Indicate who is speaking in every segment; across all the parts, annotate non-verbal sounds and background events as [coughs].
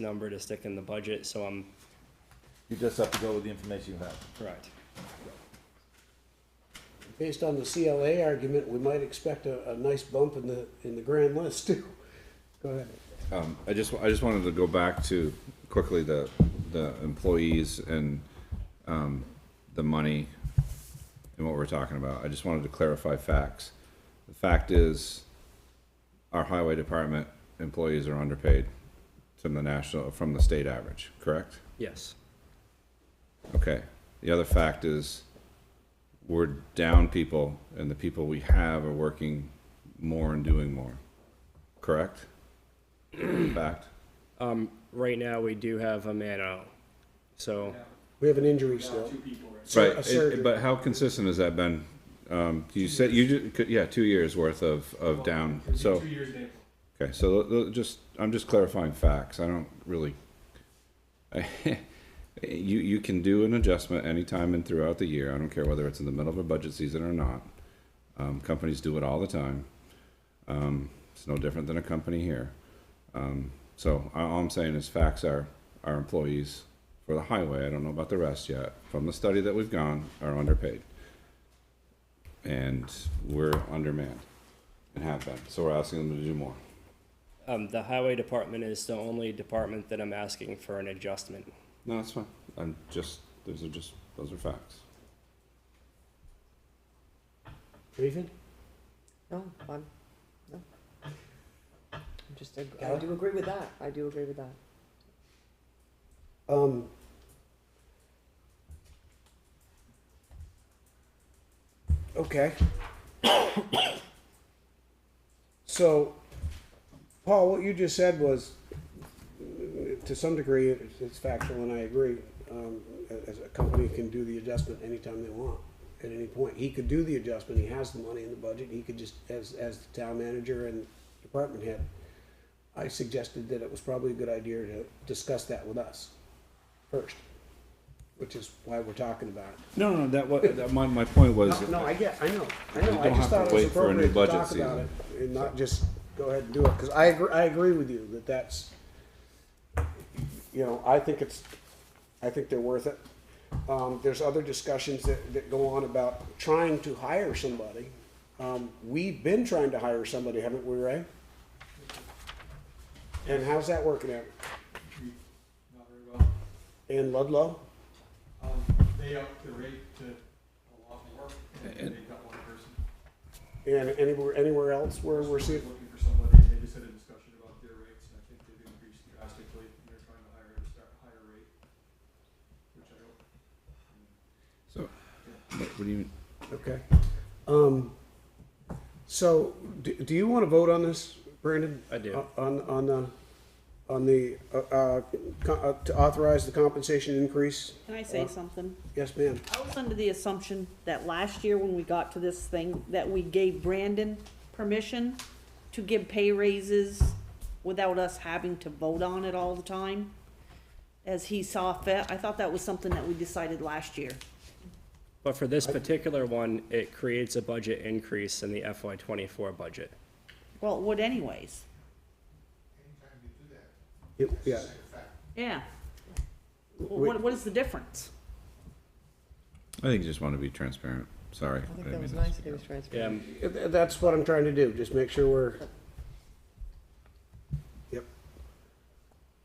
Speaker 1: number to stick in the budget, so I'm,
Speaker 2: You just have to go with the information you have.
Speaker 1: correct.
Speaker 3: Based on the CLA argument, we might expect a, a nice bump in the, in the grand list too. Go ahead.
Speaker 4: Um, I just, I just wanted to go back to quickly the, the employees and, um, the money and what we're talking about. I just wanted to clarify facts. The fact is, our highway department employees are underpaid from the national, from the state average, correct?
Speaker 1: Yes,
Speaker 4: Okay. The other fact is, we're down people and the people we have are working more and doing more, correct? Fact?
Speaker 1: right now, we do have a man out, so,
Speaker 3: We have an injury still. Sur-
Speaker 4: Right,
Speaker 3: a
Speaker 4: it-
Speaker 3: surgery.
Speaker 4: but how consistent has that been? Um, you said you ju- could, yeah, two years worth of, of down, so,
Speaker 5: Two years in April.
Speaker 4: okay, so l- l- just, I'm just clarifying facts, I don't really. [laughs] You, you can do an adjustment anytime and throughout the year, I don't care whether it's in the middle of a budget season or not. Um, companies do it all the time. Um, it's no different than a company here. Um, so a- all I'm saying is facts are, our employees for the highway, I don't know about the rest yet, from the study that we've gone, are underpaid. And we're undermanned and have been, so we're asking them to do more.
Speaker 1: um, the highway department is the only department that I'm asking for an adjustment.
Speaker 4: No, that's fine. I'm just, those are just, those are facts.
Speaker 3: Nathan?
Speaker 6: No, I'm, no. I'm just, ag- I do agree with that, I do agree with that.
Speaker 3: Um, okay. [coughs] so, Paul, what you just said was, to some degree, it- it's factual, and I agree. Um, as a company can do the adjustment anytime they want, at any point. He could do the adjustment. He has the money in the budget. He could just, as as the town manager and department head, I suggested that it was probably a good idea to discuss that with us first, which is why we're talking about it.
Speaker 4: No, no, that was, my, my point was.
Speaker 3: No, no, I get, I know, I know,
Speaker 4: You
Speaker 3: I
Speaker 4: don't
Speaker 3: just
Speaker 4: have to
Speaker 3: thought it was
Speaker 4: wait for a new
Speaker 3: appropriate to
Speaker 4: budget
Speaker 3: talk about it and not just go ahead and do it, cause I agree, I agree with you that that's, you know, I think it's, I think they're worth it. Um, there's other discussions that, that go on about trying to hire somebody. Um, we've been trying to hire somebody, haven't we, Ray? And how's that working out?
Speaker 5: Not very well.
Speaker 3: And Ludlow?
Speaker 5: Um, they upped the rate to a lot more, and they got one person.
Speaker 3: And anywhere, anywhere else where we're
Speaker 5: They're
Speaker 3: seeing,
Speaker 5: Looking for somebody, and they just had a discussion about their rates, and I think they've increased drastically, and they're trying to hire at a start- higher rate, which I don't.
Speaker 4: So, what what do you,
Speaker 3: okay. Um, so, do, do you want to vote on this, Brandon?
Speaker 1: I do.
Speaker 3: O- On, on the, on the, uh, uh, co- uh, to authorize the compensation increase?
Speaker 7: Can I say
Speaker 3: Uh,
Speaker 7: something?
Speaker 3: Yes, ma'am.
Speaker 7: I was under the assumption that last year when we got to this thing, that we gave Brandon permission to give pay raises without us having to vote on it all the time, as he saw fit. I thought that was something that we decided last year.
Speaker 1: But for this particular one, it creates a budget increase in the FY twenty-four budget.
Speaker 7: Well, it would anyways.
Speaker 3: It- Yeah,
Speaker 7: Yeah. Well, What, what is the difference?
Speaker 4: I think you just want to be transparent, sorry.
Speaker 6: I think
Speaker 4: didn't
Speaker 6: that was
Speaker 4: mean to
Speaker 6: nice
Speaker 4: stick
Speaker 6: that he was
Speaker 4: up.
Speaker 1: Yeah,
Speaker 6: transparent.
Speaker 1: I'm-
Speaker 3: Th- that's what I'm trying to do, just make sure we're. Yep.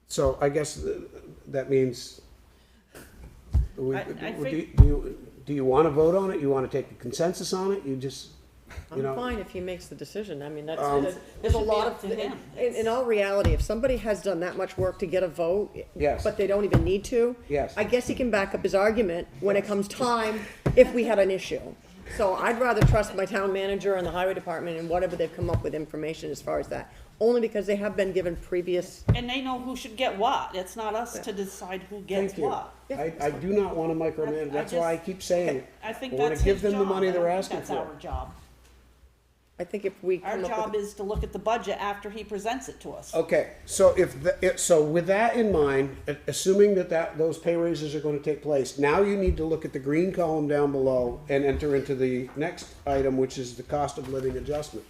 Speaker 3: So I guess th- that means. we-
Speaker 7: I- I
Speaker 3: Do
Speaker 7: think-
Speaker 3: do you, do you want to vote on it? You want to take a consensus on it? You just, you
Speaker 6: I'm
Speaker 3: know,
Speaker 6: fine if he makes the decision, I mean, that's,
Speaker 3: Um,
Speaker 6: there's-
Speaker 7: It
Speaker 6: there's a
Speaker 7: should be
Speaker 6: lot
Speaker 7: up
Speaker 6: of,
Speaker 7: to
Speaker 6: in,
Speaker 7: him.
Speaker 6: in all reality, if somebody has done that much work to get a vote,
Speaker 3: Yes.
Speaker 6: but they don't even need to.
Speaker 3: Yes.
Speaker 6: I guess he can back up his argument when it comes time, if we had an issue. So I'd rather trust my town manager and the highway department and whatever they've come up with information as far as that, only because they have been given previous
Speaker 7: And they know who should get what. It's not us to decide who gets
Speaker 3: thank you.
Speaker 7: what.
Speaker 3: I, I do not want to micromanage,
Speaker 7: I- I
Speaker 3: that's why I
Speaker 7: just-
Speaker 3: keep saying it.
Speaker 7: I think
Speaker 3: We wanna
Speaker 7: that's
Speaker 3: give
Speaker 7: his job.
Speaker 3: them the money
Speaker 7: I
Speaker 3: they're
Speaker 7: don't
Speaker 3: asking
Speaker 7: think that's
Speaker 3: for.
Speaker 7: our job.
Speaker 6: I think if we
Speaker 7: Our
Speaker 6: come up
Speaker 7: job
Speaker 6: with,
Speaker 7: is to look at the budget after he presents it to us.
Speaker 3: Okay, so if, the- if, so with that in mind, a- assuming that that, those pay raises are gonna take place, now you need to look at the green column down below and enter into the next item, which is the cost of living adjustment.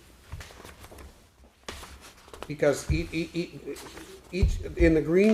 Speaker 3: Because ea- ea- ea- e, each, in the green